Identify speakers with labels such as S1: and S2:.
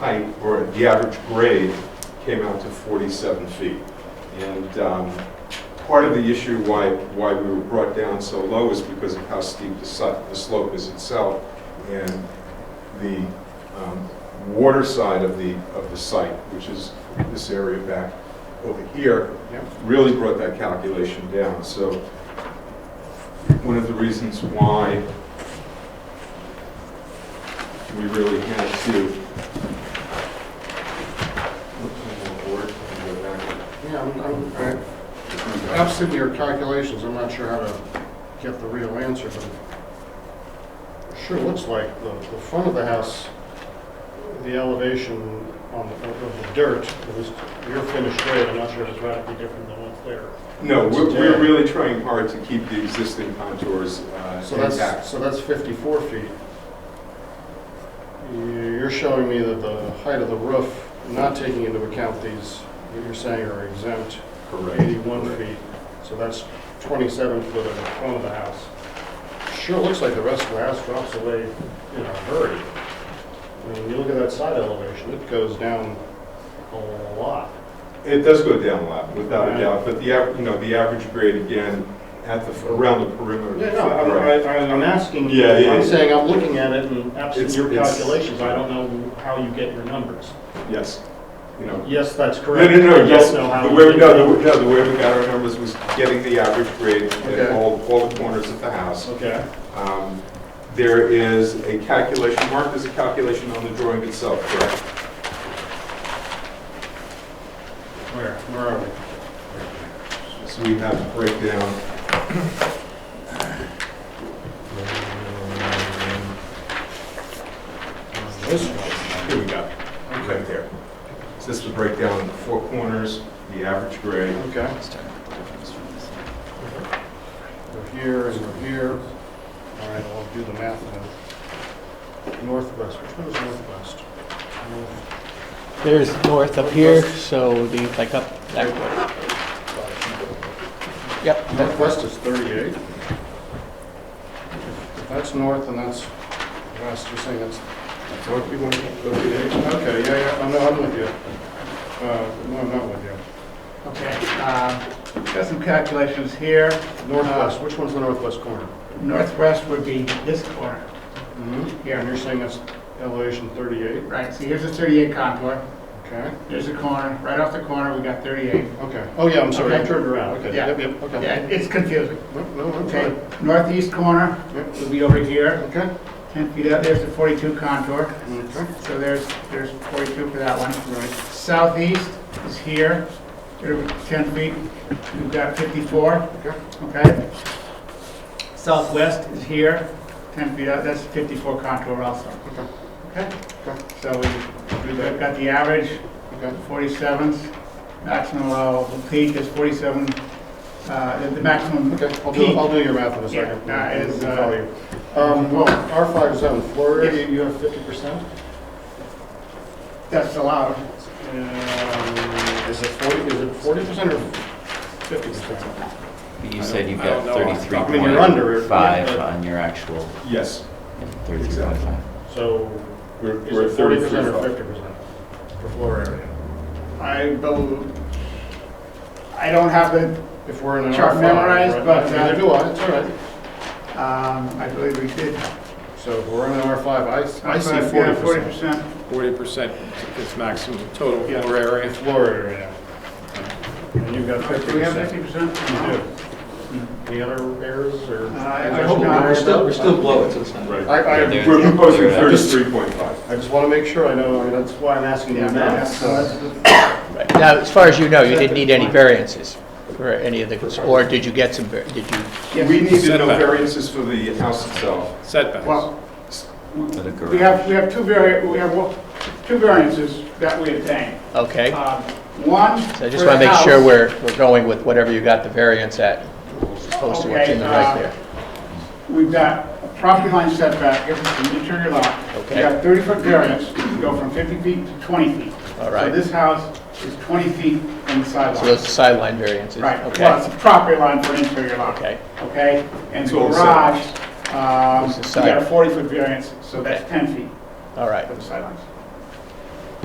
S1: height, or the average grade, came out to 47 feet. And um, part of the issue why, why we were brought down so low is because of how steep the si- the slope is itself, and the um, water side of the, of the site, which is this area back over here, really brought that calculation down. So one of the reasons why we really had to. Oops, I'm on board. Let me go back.
S2: Yeah, I'm- I'm- I- absent your calculations, I'm not sure how to get the real answer, but it sure looks like the, the front of the house, the elevation on the, of the dirt, it was your finished grade, I'm not sure if it's radically different than what's there.
S1: No, we're, we're really trying hard to keep the existing contours uh,
S2: So that's,
S1: intact.
S2: so that's 54 feet. You- You're showing me that the height of the roof, not taking into account these, that you're saying are exempt,
S1: Correct.
S2: 81 feet, so that's 27 foot in the front of the house. Sure looks like the rest of the house drops away in a hurry. I mean, you look at that side elevation, it goes down a lot.
S1: It does go down a lot, without a doubt, but the, av- you know, the average grade again, at the, around the perimeter. of the
S2: Yeah, no, I'm,
S1: footprint.
S2: I- I- I'm asking, you-
S1: Yeah, yeah,
S2: I'm
S1: yeah.
S2: saying I'm looking at it and absent
S1: It's-
S2: your
S1: it's-
S2: calculations, I don't know how you get your numbers.
S1: Yes, you know.
S2: Yes, that's
S1: No,
S2: correct.
S1: no, no,
S2: I
S1: yes,
S2: don't know how
S1: the
S2: you
S1: way,
S2: get
S1: no,
S2: your
S1: the way-
S2: numbers.
S1: no, the way we got our numbers was getting the average grade at
S2: Okay.
S1: all, all the corners of the house.
S2: Okay,
S1: Um, There is a calculation, Mark, there's a calculation on the drawing itself, correct?
S2: where, where are we?
S1: So we have a breakdown.
S2: This one.
S1: Here we go, right there. So this is the breakdown of the four corners, the average grade.
S2: Okay. We're here and we're here. All right, I'll do the math now. Northwest, which one is northwest? North-
S3: There's north up here, so the, like up that way. Yep, that-
S2: Northwest is 38. If That's north and that's west, you're saying that's,
S1: Mark, you want to go to the-
S2: okay, yeah, yeah, I'm, I'm with you. Uh, no, I'm not with you.
S4: Okay, um, got some calculations here.
S2: Northwest, which one's the northwest corner?
S4: Northwest would be this corner.
S2: Yeah, and you're saying that's elevation 38,
S4: Right, so here's the 38 contour,
S2: okay?
S4: here's the corner, right off the corner, we got 38.
S2: Okay, oh yeah, I'm sorry, I
S4: Okay.
S2: turned around, okay.
S4: Yeah.
S2: Yep, yep, okay.
S4: Yeah, it's confusing.
S2: No, no, I'm
S4: Okay,
S2: fine.
S4: northeast corner
S2: Yep,
S4: would be over here,
S2: Okay.
S4: 10 feet out, there's the 42 contour.
S2: Okay.
S4: So there's, there's 42 for that one. Southeast is here, there we- 10 feet, we've got 54.
S2: Okay.
S4: Okay. Southwest is here, 10 feet out, that's 54 contour also.
S2: Okay.
S4: Okay?
S2: Okay.
S4: So we- we've got the average,
S2: Okay.
S4: 47s, maximum allowable peak is 47, uh, the- the maximum
S2: Okay, I'll do,
S4: peak.
S2: I'll do your math in a
S4: Yeah,
S2: second.
S4: that is,
S2: I'll
S4: uh,
S2: tell you. Um, well, R five zone, floor area, you have fifty percent?
S4: That's allowed.
S2: Um, Is it forty, is it forty percent or fifty percent?
S5: You said you've
S2: I don't
S5: got
S2: know off the top. I mean, you're under it,
S5: 33.5
S2: but-
S5: on your actual,
S1: Yes,
S5: yeah, 33.5.
S2: So
S1: we're
S2: is
S1: we're
S2: it
S1: at
S2: forty
S1: 33.
S2: percent or fifty percent for floor area?
S4: I believe, I don't have the,
S2: If we're in an R5.
S4: Chart memorized,
S2: right?
S4: but, uh,
S2: Neither do I, it's all right.
S4: um, I believe we did.
S2: So if we're in an R five, I, s- I see forty
S4: Yeah,
S2: percent.
S4: 40%.
S6: Forty percent is maximum total
S2: Yeah.
S6: floor area.
S2: Floor area. And you've got fifty
S4: Do we have
S2: percent.
S4: 50%?
S2: Any other errors or?
S4: Uh, I- I hope not.
S7: We're still, we're still below it, so it's not.
S1: Right.
S2: I, I.
S5: They're-
S1: We're proposing
S5: they're-
S1: 33.5.
S2: I just want to make sure I know, I mean, that's why I'm asking you
S4: Yeah,
S2: now.
S4: that's-
S2: so-
S3: right. now, as far as you know, you didn't need any variances for any of the, or did you get some, var- did you?
S1: We need to know
S6: Setback.
S1: variances for the house itself.
S6: Setbacks.
S4: Well,
S5: For the
S4: we
S5: garage.
S4: have, we have two vari, we have one- two variances that we obtained.
S3: Okay,
S4: Um, One.
S3: so I just
S4: for the
S3: want to make sure
S4: house.
S3: we're, we're going with whatever you got the variance at, as opposed to what's in the
S4: Okay, uh,
S3: right there.
S4: We've got a property line setback, if it's an interior lot.
S3: Okay.
S4: We got 30-foot variance, to go from 50 feet to 20 feet.
S3: All right.
S4: So this house is 20 feet from the
S3: So those are
S4: sideline.
S3: sideline variances,
S4: Right, well,
S3: okay?
S4: it's a property line for an interior lot.
S3: Okay.
S4: Okay, and the
S1: So it's-
S4: garage, um,
S3: It's the
S4: we got a
S3: side.
S4: 40-foot variance, so that's
S3: Okay.
S4: 10 feet
S3: All right,
S4: from the sidelines.